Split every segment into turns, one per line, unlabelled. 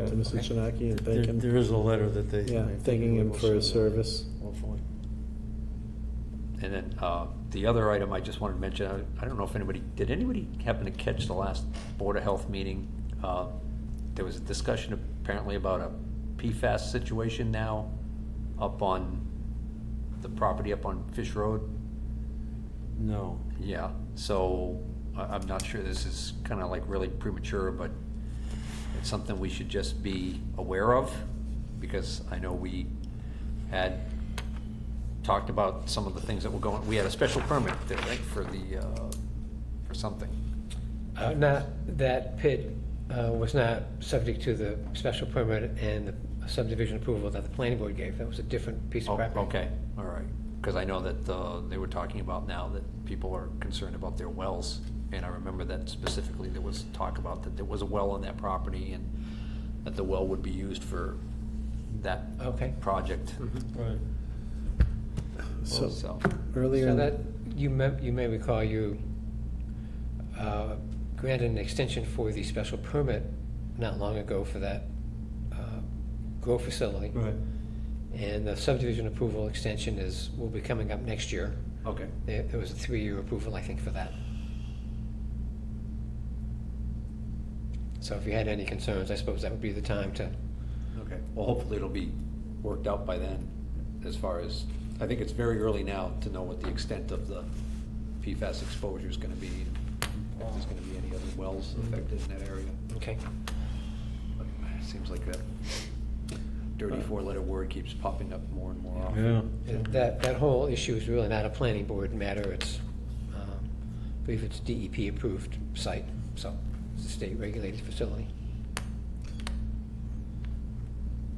out to Mr. Chinaki and
There
thank him.
there is a letter that they.
Yeah,
they-
thanking him for his service.
Hopefully.
And then uh, the other item I just wanted to mention, I- I don't know if anybody, did anybody happen to catch the last Board of Health meeting? Uh, There was a discussion apparently about a PFAS situation now up on the property up on Fish Road.
No.
Yeah, so I- I'm not sure this is kind of like really premature, but it's something we should just be aware of because I know we had talked about some of the things that were going, we had a special permit there, right, for the, uh, for something.
Uh, Not, that pit uh, was not subject to the special permit and the subdivision approval that the planning board gave. That was a different piece
Oh,
of property.
okay, all right. Because I know that uh, they were talking about now that people are concerned about their wells. And I remember that specifically, there was talk about that there was a well on that property and that the well would be used for that
Okay.
project.
Right.
So
So,
earlier,
So
in-
that, you may, you may recall you uh, granted an extension for the special permit not long ago for that uh, grow facility.
Right.
And the subdivision approval extension is, will be coming up next year.
okay.
There there was a three-year approval, I think, for that. So if you had any concerns, I suppose that would be the time to,
Okay, well, hopefully it'll be worked out by then, as far as, I think it's very early now to know what the extent of the PFAS exposure is gonna be, if there's gonna be any other wells affected in that area.
okay?
But it Seems like that dirty four-letter word keeps popping up more and more often.
Yeah.
That, that whole issue is really not a planning board matter, it's, um, I believe it's DEP-approved site, so it's a state-regulated facility.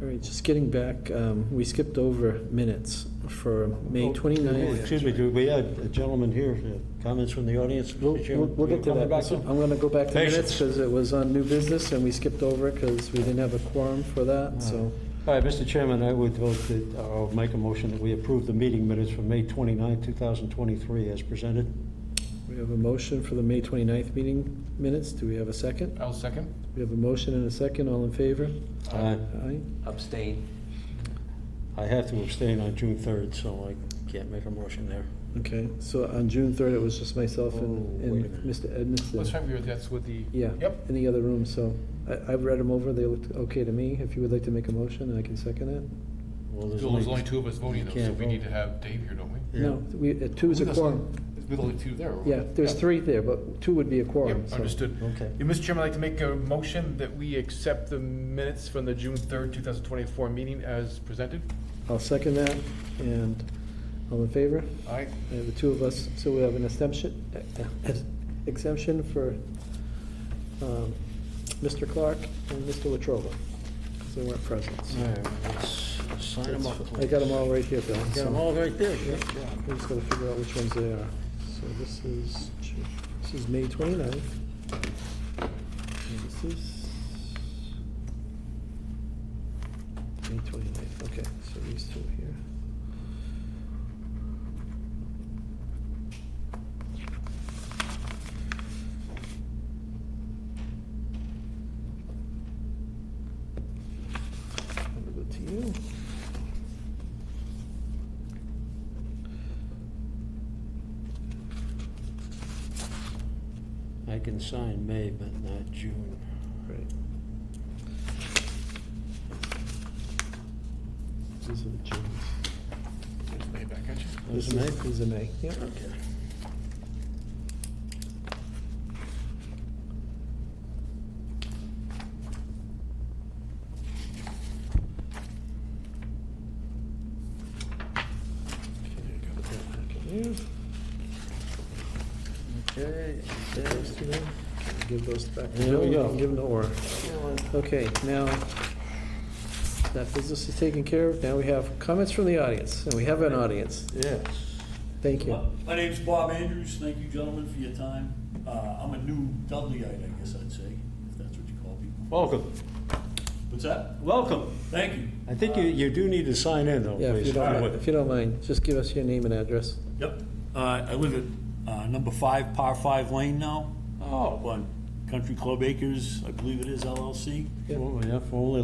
all right, just getting back, um, we skipped over minutes for May
Oh,
29th.
Excuse me, do we have a gentleman here, uh, comments from the audience? Mr.
We'll, we'll-
Chairman?
we'll get to
Coming
that.
back
So I'm gonna go back to minutes,
Patience.
because it was on new business, and we skipped over it, because we didn't have a quorum for that, so.
All right, Mr. Chairman, I would vote that, uh, I'll make a motion that we approve the meeting minutes for May 29, 2023 as presented.
We have a motion for the May 29th meeting minutes. Do we have a second?
I'll second.
We have a motion and a second. All in favor?
Uh,
Aye.
Abstain,
I have to abstain on June 3rd, so I can't make a motion there.
Okay, so on June 3rd, it was just myself and,
Oh, wait a
and Mr. Edmiston.
Let's have your, that's with the.
Yeah.
Yep.
In the other room, so I, I've read them over. They looked okay to me. If you would like to make a motion, I can second it.
Well,
There's only two of us voting though, so
can't
we need
vote.
to have Dave here, don't we?
Yeah.
No, we, uh, two's a
With us,
quorum.
There's only two there.
Yeah, there's three there, but two would be a quorum,
Yep,
so.
understood.
Okay.
Yeah, Mr. Chairman, I'd like to make a motion that we accept the minutes from the June third, two thousand twenty-four meeting as presented.
I'll second that, and all in favor?
Aye.
Uh, The two of us, so we have an exemption, exemption for um, Mr. Clark and Mr. Latrobe, because they weren't present. so.
All right, let's sign them up,
I
please.
got them all right here, Bill.
Got 'em
so-
all right there. Good job.
We just gotta figure out which ones they are. So this is, this is May 29th. And this is... May 29th, okay, so these two here. Over to you.
I can sign May, but not June.
Right. These are the Junes.
There's Dave back at you.
This
This
May?
is- These are May, yep.
Okay. Okay.
Those to them. Give those back to
There
Bill.
we go.
Give them to Orr. Okay, now, that business is taken care of. Now we have comments from the audience, and we have an audience.
Yes.
Thank you.
My name's Bob Andrews. Thank you, gentlemen, for your time. Uh, I'm a new Dudleyite, I guess I'd say, if that's what you call people.
Welcome,
What's that?
welcome.
Thank you.
I think you, you do need to sign in though,
Yeah, if you
please.
don't,
All
mi-
right.
if you don't mind, just give us your name and address.
uh, Yep. Uh, I live at, uh, number five, par five lane now.
Oh,
One, Country Club Acres, I believe it is LLC.
Well, Oh, yeah, for only